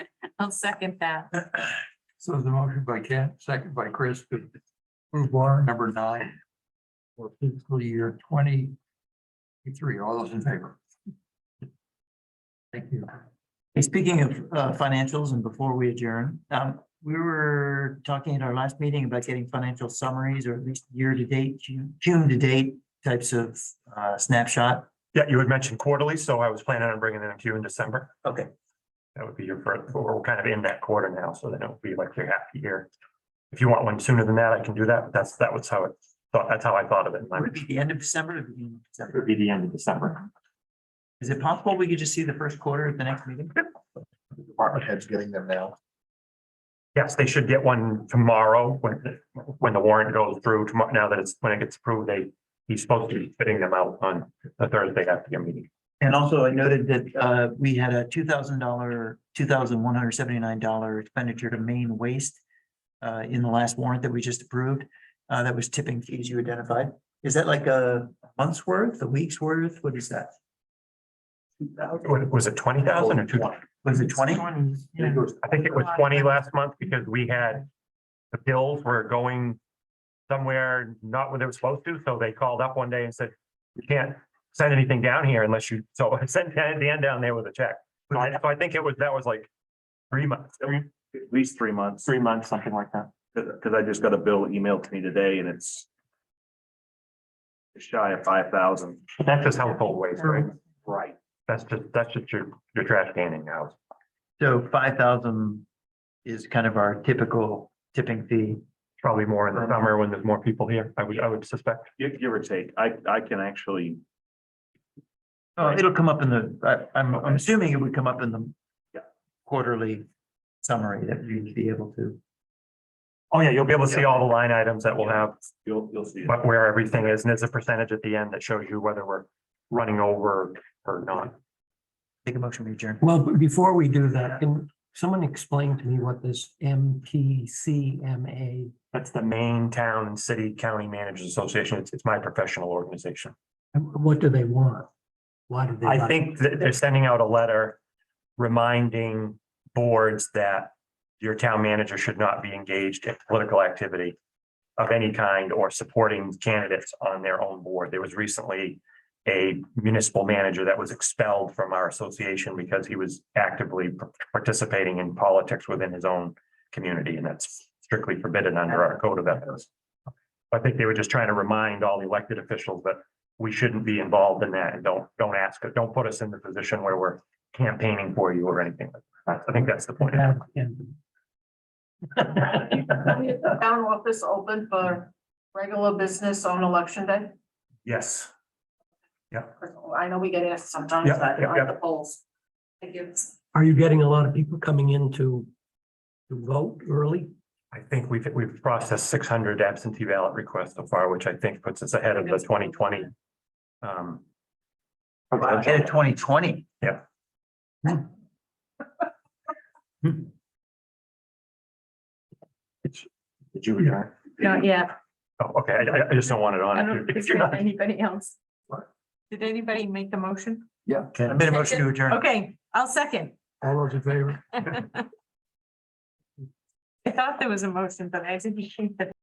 I'll second that. So the motion by Ken, second by Chris, to approve warrant number nine for fiscal year twenty three. All those in favor? Thank you. Hey, speaking of uh, financials and before we adjourn, um, we were talking at our last meeting about getting financial summaries or at least year to date, June, June to date types of uh, snapshot. Yeah, you had mentioned quarterly, so I was planning on bringing them to you in December. Okay. That would be your first, but we're kind of in that quarter now, so then it would be like your half year. If you want one sooner than that, I can do that. but That's, that was how it, thought. that's how I thought of it. Would it be the end of December or the beginning of It December? would be the end of December. Is it possible we could just see the first quarter at the next meeting? Department heads getting them now. Yes, they should get one tomorrow when, the- when the warrant goes through tomorrow, now that it's, when it gets approved, they, he's supposed to be fitting them out on the Thursday after your meeting. And also I noted that uh, we had a two thousand dollar, two thousand one hundred seventy-nine dollar expenditure to main waste uh, in the last warrant that we just approved, uh, that was tipping fees you identified. Is that like a month's worth, a week's worth? What is that? Was was it twenty thousand or two? Was it twenty? Yeah. I think it was twenty last month because we had, the bills were going somewhere not where they were supposed to, so they called up one day and said, you can't send anything down here unless you, so I sent Dan Dan down there with a check. So I, so I think it was, that was like three months, three- at least three months, three months, something like that. because I just got a bill emailed to me today and it's shy of five thousand. But that's just household waste, right? Right. That's just, that's just your, your trash can in your house. So five thousand is kind of our typical tipping fee. Probably more in the summer when there's more people here, I would, I would suspect. Give, give or take. I, I can actually, Oh, it'll come up in the, I, I'm, I'm assuming it would come up in the Yeah. quarterly summary that you'd be able to. Oh, yeah, you'll be able to see all the line items that we'll have you'll, you'll see. it. but where everything is, and there's a percentage at the end that shows you whether we're running over or not. Take a motion, we adjourn. Well, but before we do that, can someone explain to me what this MTCMA? That's the main town and city county managers association. It's, it's my professional organization. What do they want? Why do they? I like- think that they're sending out a letter reminding boards that your town manager should not be engaged in political activity of any kind or supporting candidates on their own board. There was recently a municipal manager that was expelled from our association because he was actively participating in politics within his own community, and that's strictly forbidden under our code of ethics. I think they were just trying to remind all the elected officials that we shouldn't be involved in that and don't, don't ask, don't put us in the position where we're campaigning for you or anything. like that. I think that's the point. Yeah, yeah. Town office open for regular business on election day? Yes. I know we get asked sometimes Yeah, that yeah, on yeah. the polls. Thank you. Are you getting a lot of people coming in to, to vote early? I think we've, we've processed six hundred absentee ballot requests so far, which I think puts us ahead of the twenty twenty. Um. Wow, At twenty twenty. Did you return? Not yet. Oh, okay, I, I- I just don't want it I on. don't if think you- if it's you're got not- anybody else. Did anybody make the motion? I made a motion to adjourn. Okay, I'll second. All those in favor? I thought there was a motion, but I didn't think that.